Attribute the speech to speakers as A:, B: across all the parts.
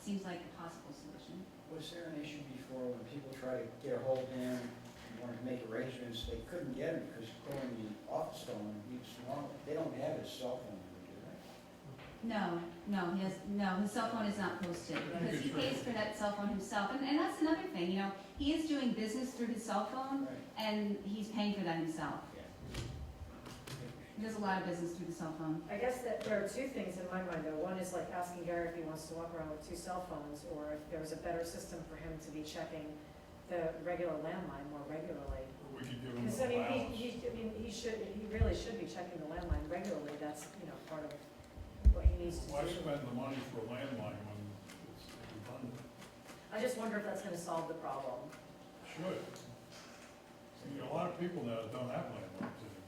A: seems like a possible solution.
B: Was there an issue before when people try to get a hold of him and wanted to make arrangements, they couldn't get him because calling the office phone, he was wrong, they don't have his cell phone number, do they?
A: No, no, he has, no, his cell phone is not posted, because he pays for that cell phone himself, and, and that's another thing, you know, he is doing business through his cell phone,
B: Right.
A: and he's paying for that himself.
B: Yeah.
A: He does a lot of business through the cell phone.
C: I guess that there are two things in my mind, though. One is like asking Gary if he wants to walk around with two cell phones, or if there's a better system for him to be checking the regular landline more regularly.
D: Or we could give them
C: Because, I
D: an
C: mean,
D: allowance.
C: he, he, I mean, he should, he really should be checking the landline regularly, that's, you know, part of what he needs to
D: Why
C: do.
D: spend the money for a landline when it's redundant?
C: I just wonder if that's gonna solve the problem.
D: Should. I mean, a lot of people now don't have landlines anymore.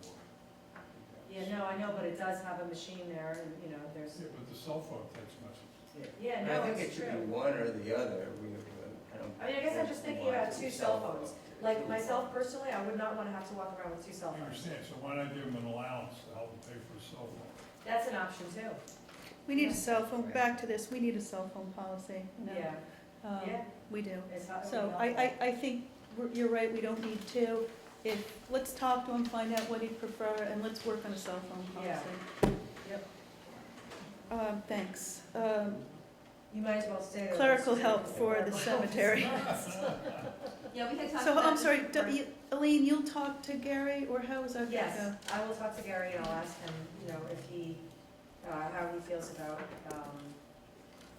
C: Yeah, no, I know, but it does have a machine there, and, you know, there's,
D: Yeah, but the cell phone text message.
C: yeah,
E: I
C: no,
E: think it
C: it's
E: should be
C: true.
E: one or the other. We, I don't.
C: I mean, I guess I'm just thinking about two cell phones. Like myself personally, I would not wanna have to walk around with two
D: I
C: cell phones.
D: understand, so why not give them an allowance to help them pay for a cell phone?
C: That's an option too,
F: We need a cell phone, back to this, we need a cell phone policy. you know.
C: yeah,
F: Um,
C: yeah.
F: We do.
C: it's not-
F: So I, I, I think we're- you're right, we don't need two. If, let's talk to him, find out what he'd prefer, and let's work on a cell phone
C: Yeah.
F: policy.
C: Yep.
F: Um, thanks. Um,
C: You might as well stay. there.
F: Clerical help for the cemetery.
A: Yeah, we had talked
F: So
A: about
F: I'm
A: this
F: sorry,
A: before.
F: do- you- Elaine, you'll talk to Gary, or how is that gonna
C: Yes,
F: go?
C: I will talk to Gary and I'll ask him, you know, if he, uh, how he feels about, um,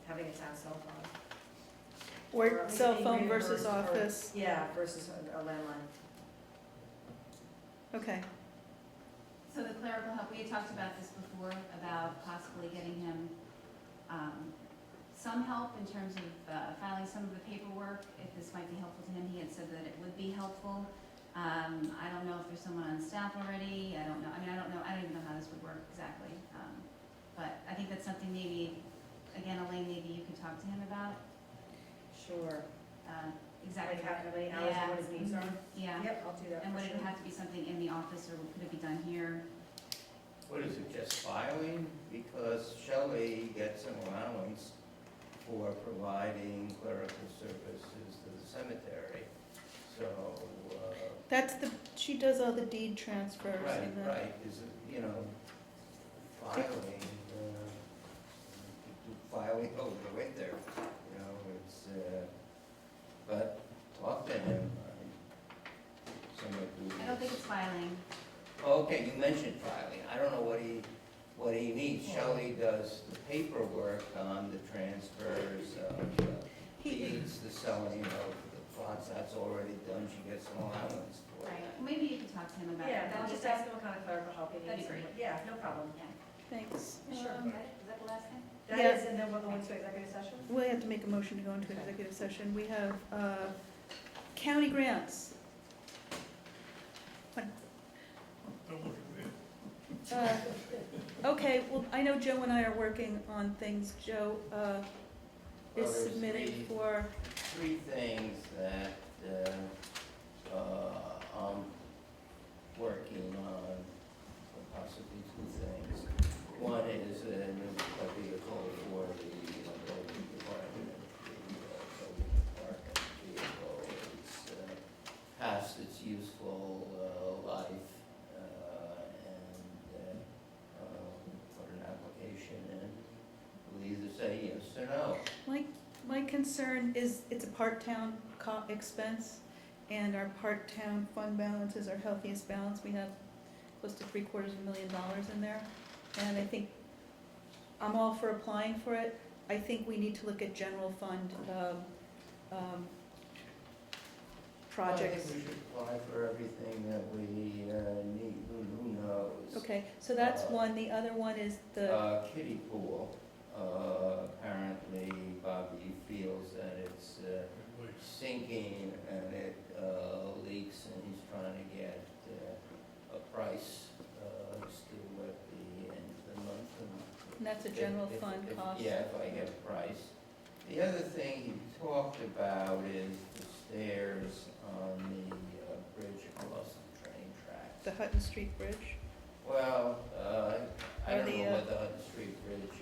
C: having a town cell phone. Or
F: Or
C: at least
F: cell
C: being
F: phone versus
C: reimbursed for-
F: office,
C: Yeah, versus a a landline.
F: okay.
A: So the clerical help, we had talked about this before, about possibly getting him, um, some help in terms of uh, filing some of the paperwork, if this might be helpful to him, he had said that it would be helpful. Um, I don't know if there's someone on staff already, I don't know, I mean, I don't know, I don't even know how this would work exactly. Um, But I think that's something maybe, again, Elaine, maybe you could talk to him about,
C: Sure.
A: uh, exactly.
C: Like how how many hours and what his needs are.
A: Mm-hmm. Yeah,
C: Yep, I'll do that.
A: and
C: for
A: would it
C: sure.
A: have to be something in the office, or could it be done here?
E: What is it, just filing? Because Shelley gets an allowance for providing clerical services to the cemetery. So, uh,
F: That's the, she does all the deed transfers
E: right,
F: and the.
E: right, is it, you know, filing, uh, filing over the winter, you know, it's, uh, but talk to him. I- Somebody who.
A: I don't think it's filing.
E: Okay, you mentioned filing, I don't know what he, what he needs, Shelley does the paperwork on the transfers of uh,
F: He,
E: deeds, the selling of the plots, that's already done, she gets an allowance for
A: Right,
E: it.
A: maybe you can talk to him about it.
C: Yeah,
A: That'll
C: I'll just
A: be-
C: ask him what kind of clerical help he needs.
A: That'd be
C: and
A: great.
C: what- Yeah, no problem.
A: Yeah.
F: thanks.
C: Sure.
F: Um,
A: Is that the last thing?
C: That
F: Yeah.
C: is, and then we'll go into executive session?
F: We have to make a motion to go into executive session. We have uh, county grants.
D: Don't look at me.
F: Uh, Okay, well, I know Joe and I are working on things. Joe uh,
E: Well,
F: is
E: there's
F: submitted
E: three-
F: for,
E: Three things that, uh, uh, I'm working on, or possibly two things. One is a new vehicle for the uh, building department, the uh, building department vehicle. It's uh, past its useful uh, life, uh, and uh, uh, put an application in. We'll either say yes or no.
F: my, my concern is it's a part-town co- expense, and our part-town fund balance is our healthiest balance. We have close to three quarters of a million dollars in there. And I think, I'm all for applying for it. I think we need to look at general fund um, um,
E: Well, I
F: projects.
E: think we should apply for everything that we uh, need, who who knows?
F: Okay, so that's one. The other one is the,
E: Uh, kiddie pool, uh, apparently Bobby feels that it's uh,
D: At least.
E: sinking and it uh, leaks and he's trying to get uh, a price uh, as to what the end of the month and
F: and that's a
E: if-
F: general
E: if-
F: fund
E: if-
F: cost.
E: Yeah, if I get a price. The other thing he talked about is the stairs on the uh, bridge across the train tracks.
F: The Hutton Street Bridge.
E: Well, uh, I
F: Or
E: don't
F: the,
E: know
F: uh,
E: what the Hudson Street Bridge